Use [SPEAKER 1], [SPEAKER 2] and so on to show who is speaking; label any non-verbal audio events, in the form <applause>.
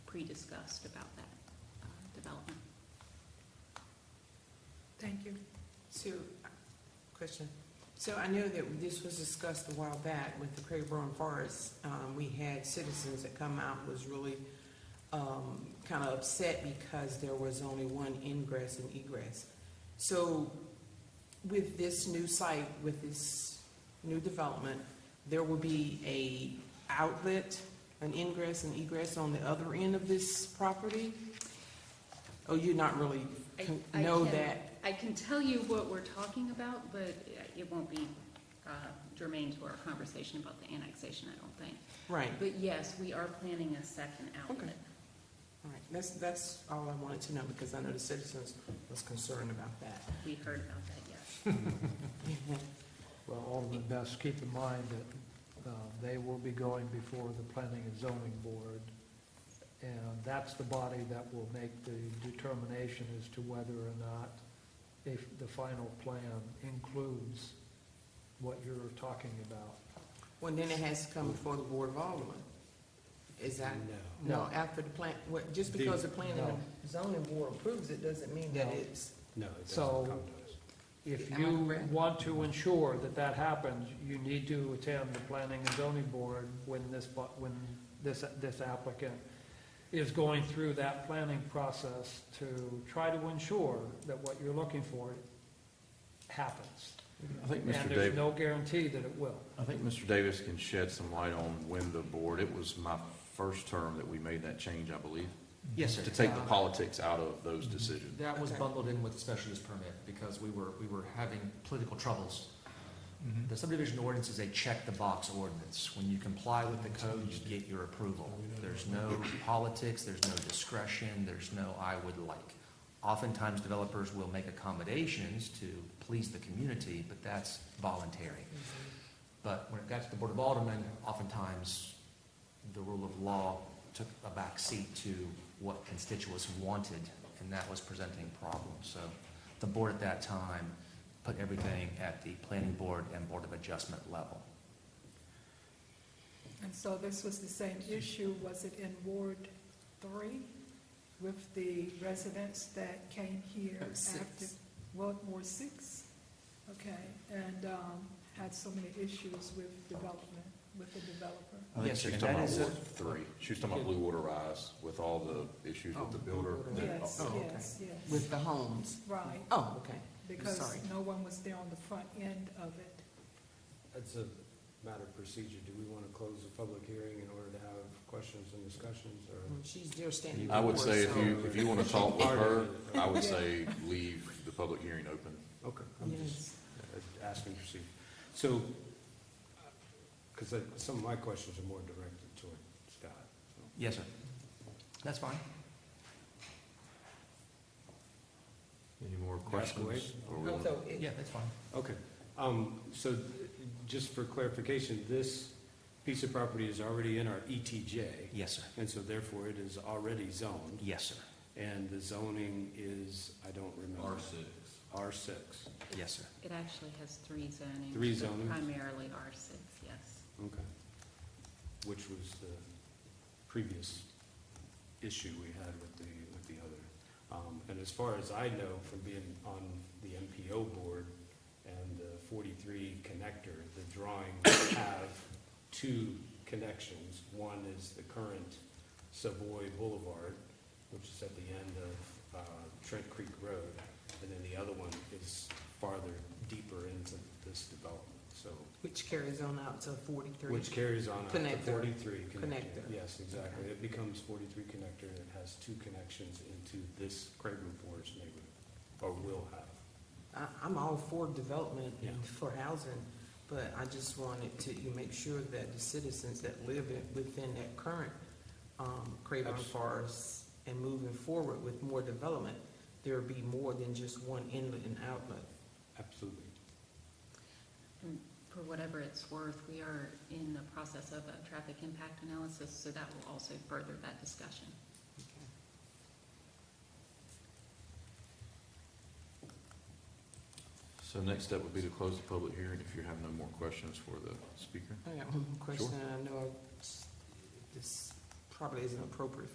[SPEAKER 1] pre-discussed about that uh, development.
[SPEAKER 2] Thank you.
[SPEAKER 3] So, question. So I know that this was discussed a while back with the Craigburn Forest. Um, we had citizens that come out was really, um, kind of upset because there was only one ingress and egress. So with this new site, with this new development, there will be a outlet, an ingress and egress on the other end of this property? Oh, you're not really
[SPEAKER 1] I-
[SPEAKER 3] con-
[SPEAKER 1] I
[SPEAKER 3] know
[SPEAKER 1] can-
[SPEAKER 3] that?
[SPEAKER 1] I can tell you what we're talking about, but it won't be uh, germane to our conversation about the annexation, I don't think.
[SPEAKER 3] Right.
[SPEAKER 1] But yes, we are planning a second outlet.
[SPEAKER 3] Okay. All right, that's, that's all I wanted to know, because I know the citizens was concerned about that. <laughs>
[SPEAKER 1] We heard about that, yes.
[SPEAKER 4] Well, Alderman Best, keep in mind that uh, they will be going before the Planning and Zoning Board, and that's the body that will make the determination as to whether or not if the final plan includes what you're talking about.
[SPEAKER 3] Well, then it has to come before the Board of Aldermen. Is that,
[SPEAKER 5] No.
[SPEAKER 3] no, after the plan, what, just because the planning
[SPEAKER 4] No.
[SPEAKER 3] and zoning board approves it, doesn't mean that
[SPEAKER 4] No.
[SPEAKER 3] it's.
[SPEAKER 5] No, it doesn't
[SPEAKER 4] So-
[SPEAKER 5] come to us.
[SPEAKER 4] If
[SPEAKER 3] Am I
[SPEAKER 4] you
[SPEAKER 3] correct?
[SPEAKER 4] want to ensure that that happens, you need to attend the planning and zoning board when this, bu- when this, this applicant is going through that planning process to try to ensure that what you're looking for happens.
[SPEAKER 6] I think
[SPEAKER 4] And
[SPEAKER 6] Mr.
[SPEAKER 4] there's
[SPEAKER 6] Davis,
[SPEAKER 4] no guarantee that it will.
[SPEAKER 6] I think Mr. Davis can shed some light on when the board, it was my first term that we made that change, I believe,
[SPEAKER 5] Yes,
[SPEAKER 6] to
[SPEAKER 5] sir. Mm-hmm.
[SPEAKER 6] take the politics out of those decisions.
[SPEAKER 5] That was
[SPEAKER 3] Okay.
[SPEAKER 5] bundled in with the special use permit because we were, we were having political troubles. The subdivision ordinance is a check-the-box ordinance. When you comply with the code, you get your approval. There's no politics, there's no discretion, there's no I would like. Oftentimes, developers will make accommodations to please the community, but that's voluntary. But when it got to the Board of Aldermen, oftentimes, the rule of law took a back seat to what constituents wanted, and that was presenting problems. So the board at that time put everything at the planning board and board of adjustment level.
[SPEAKER 2] And so this was the same issue, was it in Ward Three with the residents that came here
[SPEAKER 3] Ward six.
[SPEAKER 2] after? Ward, Ward Six? Okay, and, um, had so many issues with development, with the developer.
[SPEAKER 6] I think
[SPEAKER 5] Yes,
[SPEAKER 6] she
[SPEAKER 5] sir,
[SPEAKER 6] was
[SPEAKER 5] and
[SPEAKER 6] talking
[SPEAKER 5] that
[SPEAKER 6] about
[SPEAKER 5] is a-
[SPEAKER 6] Ward Three. She was talking about Blue Water Rise with all the issues
[SPEAKER 3] Oh,
[SPEAKER 6] with the builder. Uh,
[SPEAKER 3] Blue Water
[SPEAKER 2] Yes,
[SPEAKER 3] Oh, okay.
[SPEAKER 2] yes, yes,
[SPEAKER 3] With the homes?
[SPEAKER 2] right,
[SPEAKER 3] Oh, okay.
[SPEAKER 2] because
[SPEAKER 3] sorry.
[SPEAKER 2] no one was there on the front end of it.
[SPEAKER 7] That's a matter of procedure. Do we want to close the public hearing in order to have questions and discussions, or?
[SPEAKER 3] Well, She's there standing.
[SPEAKER 6] I would say if
[SPEAKER 3] before,
[SPEAKER 6] you, if you want to talk with her, I would
[SPEAKER 2] Yeah.
[SPEAKER 6] say leave the public hearing open.
[SPEAKER 7] Okay,
[SPEAKER 3] so-
[SPEAKER 7] I'm just
[SPEAKER 3] Yes.
[SPEAKER 7] uh, asking procedure. So, because some of my questions are more directed toward Scott. so.
[SPEAKER 5] Yes, sir. That's fine.
[SPEAKER 6] Any more
[SPEAKER 7] Ask away.
[SPEAKER 6] questions? Or we
[SPEAKER 3] Oh,
[SPEAKER 6] wanna-
[SPEAKER 3] so it-
[SPEAKER 5] Yeah, that's fine.
[SPEAKER 7] Okay, um, so th- just for clarification, this piece of property is already in our ETJ,
[SPEAKER 5] Yes, sir.
[SPEAKER 7] and so therefore it is already zoned,
[SPEAKER 5] Yes, sir.
[SPEAKER 7] and the zoning is, I don't remember. R six.
[SPEAKER 5] Yes, sir.
[SPEAKER 1] It actually has three zonings.
[SPEAKER 7] Three
[SPEAKER 1] but
[SPEAKER 7] zonings.
[SPEAKER 1] Primarily R6, yes.
[SPEAKER 7] okay. Which was the previous issue we had with the, with the other. Um, and as far as I know from being on the MPO board and the forty-three connector, the drawings <coughs> have two connections. One is the current Savoy Boulevard, which is at the end of, uh, Trent Creek Road. And then the other one is farther deeper into this development, so.
[SPEAKER 3] Which carries on out to forty-three.
[SPEAKER 7] Which carries on up to
[SPEAKER 3] Connector.
[SPEAKER 7] forty-three connector.
[SPEAKER 3] Connector.
[SPEAKER 7] Yes, exactly. It becomes forty-three connector and it has two connections into this Craven Forest neighborhood, or will have.
[SPEAKER 3] I, I'm all for development
[SPEAKER 7] Yeah.
[SPEAKER 3] and for housing, but I just wanted to, you make sure that the citizens that live in- within that current, um, Craven
[SPEAKER 7] Abs-
[SPEAKER 3] Forest and moving forward with more development, there would be more than just one inlet and outlet.
[SPEAKER 7] Absolutely.
[SPEAKER 1] And for whatever it's worth, we are in the process of a traffic impact analysis, so that will also further that discussion.
[SPEAKER 6] So next step would be to close the public hearing if you have no more questions for the speaker.
[SPEAKER 3] I got one more question, and I know I- this probably isn't appropriate